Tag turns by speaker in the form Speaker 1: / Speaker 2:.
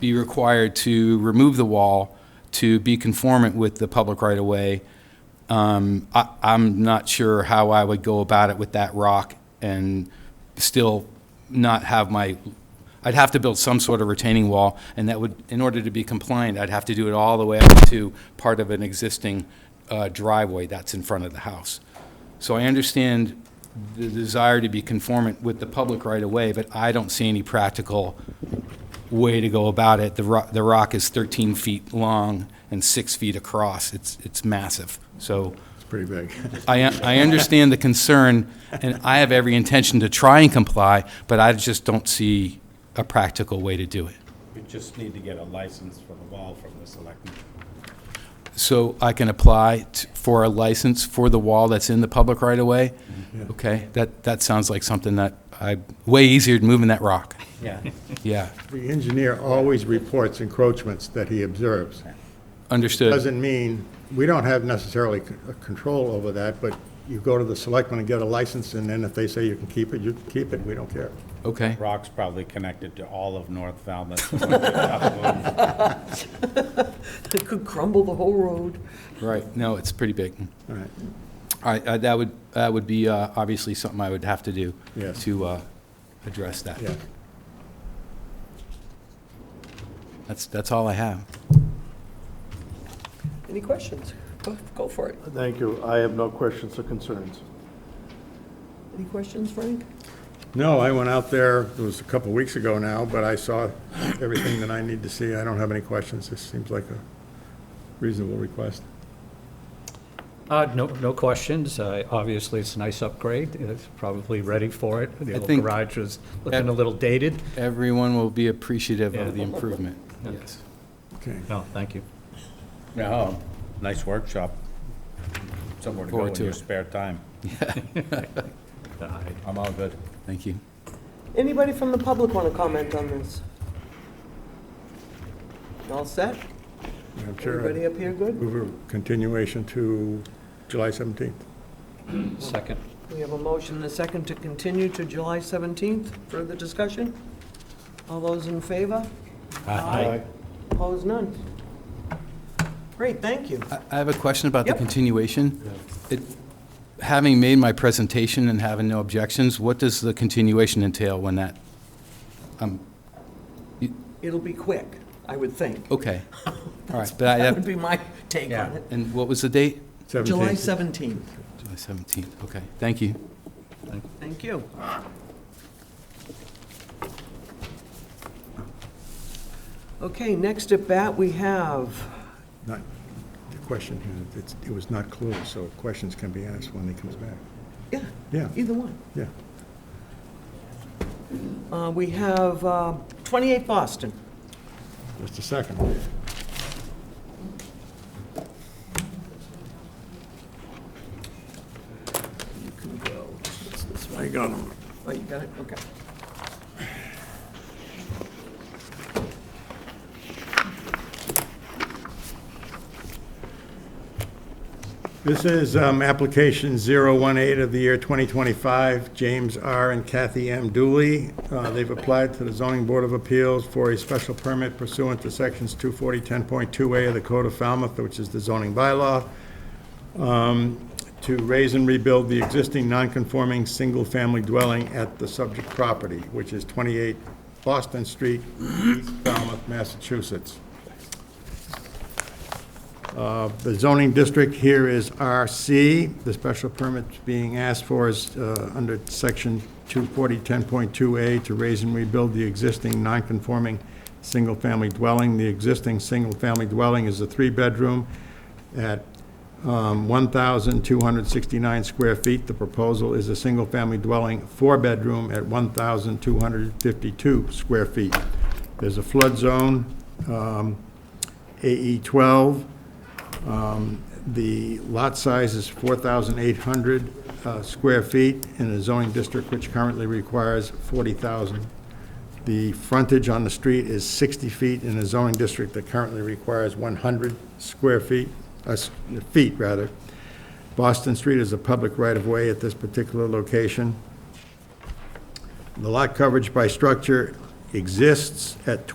Speaker 1: be required to remove the wall to be conformant with the public right-of-way. Um, I, I'm not sure how I would go about it with that rock and still not have my, I'd have to build some sort of retaining wall, and that would, in order to be compliant, I'd have to do it all the way up to part of an existing uh, driveway that's in front of the house. So I understand the desire to be conformant with the public right-of-way, but I don't see any practical way to go about it. The rock, the rock is 13 feet long and six feet across. It's, it's massive. So
Speaker 2: Pretty big.
Speaker 1: I, I understand the concern, and I have every intention to try and comply, but I just don't see a practical way to do it.
Speaker 3: We just need to get a license for the wall from the selectmen.
Speaker 1: So I can apply t- for a license for the wall that's in the public right-of-way? Okay, that, that sounds like something that I, way easier than moving that rock.
Speaker 3: Yeah.
Speaker 1: Yeah,
Speaker 2: The engineer always reports encroachments that he observes.
Speaker 1: understood.
Speaker 2: Doesn't mean, we don't have necessarily c- uh, control over that, but you go to the selectmen and get a license, and then if they say you can keep it, you can keep it, we don't care.
Speaker 1: Okay,
Speaker 3: Rock's probably connected to all of North Falmouth.
Speaker 4: It could crumble the whole road.
Speaker 1: right, no, it's pretty big.
Speaker 2: All right.
Speaker 1: All right, uh, that would, that would be uh, obviously something I would have to do
Speaker 2: Yes.
Speaker 1: to uh, address that.
Speaker 2: Yeah.
Speaker 1: That's, that's all I have.
Speaker 4: Any questions? Go- Go for it.
Speaker 5: Thank you. I have no questions or concerns.
Speaker 4: Any questions, Frank?
Speaker 2: No, I went out there, it was a couple of weeks ago now, but I saw everything that I need to see. I don't have any questions. This seems like a reasonable request.
Speaker 6: Uh, no, no questions. Uh, obviously, it's a nice upgrade. It's probably ready for it. The
Speaker 1: I
Speaker 6: old
Speaker 1: think-
Speaker 6: garage was looking a little dated.
Speaker 1: Everyone will be appreciative
Speaker 6: Yeah.
Speaker 1: of the improvement, yes.
Speaker 2: Okay.
Speaker 6: No, thank you.
Speaker 3: No, Oh, nice workshop. Somewhere to go
Speaker 1: Forward
Speaker 3: in
Speaker 1: to
Speaker 3: your
Speaker 1: it.
Speaker 3: spare time.
Speaker 6: Uh,
Speaker 3: I'm all good.
Speaker 1: Thank you.
Speaker 4: Anybody from the public want to comment on this? All set?
Speaker 2: Madam Chair,
Speaker 4: Everybody up here good?
Speaker 2: Move a continuation to July 17th.
Speaker 6: Second.
Speaker 4: We have a motion and a second to continue to July 17th. Further discussion? All those in favor?
Speaker 6: Aye.
Speaker 4: Opposed, none. Great, thank you.
Speaker 1: I I have a question about the
Speaker 4: Yep.
Speaker 1: continuation. It- Having made my presentation and having no objections, what does the continuation entail when that,
Speaker 4: It'll be quick, I would think.
Speaker 1: okay. All right, but I
Speaker 4: That would
Speaker 1: have,
Speaker 4: be my take on it.
Speaker 1: and what was the date?
Speaker 2: 17th.
Speaker 4: July 17th.
Speaker 1: July 17th, okay, thank you.
Speaker 4: Thank you. Okay, next at bat, we have,
Speaker 2: Not, the question, uh, it's- it was not closed, so questions can be asked when he comes back.
Speaker 4: yeah,
Speaker 2: Yeah,
Speaker 4: either one.
Speaker 2: yeah.
Speaker 4: Uh, We have uh, 28 Boston.
Speaker 2: Just a second.
Speaker 4: You can go. It's this way.
Speaker 2: I got him.
Speaker 4: Oh, you got it, okay.
Speaker 2: This is um, application 018 of the year 2025, James R. and Kathy M. Dooley. Uh, They've applied to the Zoning Board of Appeals for a special permit pursuant to Sections 240-10.2A of the Code of Falmouth, which is the zoning bylaw, um, to raise and rebuild the existing non-conforming single-family dwelling at the subject property, which is 28 Boston Street, East Falmouth, Massachusetts. The zoning district here is RC. The special permit being asked for is uh, under section 240-10.2A to raise and rebuild the existing non-conforming single-family dwelling. The existing single-family dwelling is a three-bedroom at um, 1,269 square feet. The proposal is a single-family dwelling, four-bedroom at 1,252 square feet. There's a flood zone, um, E AE 12. Um, The lot size is 4,800 uh, square feet in a zoning district which currently requires 40,000. The frontage on the street is 60 feet in a zoning district that currently requires 100 square feet, uh, s- feet, rather. Boston Street is a public right-of-way at this particular location. The lot coverage by structure exists at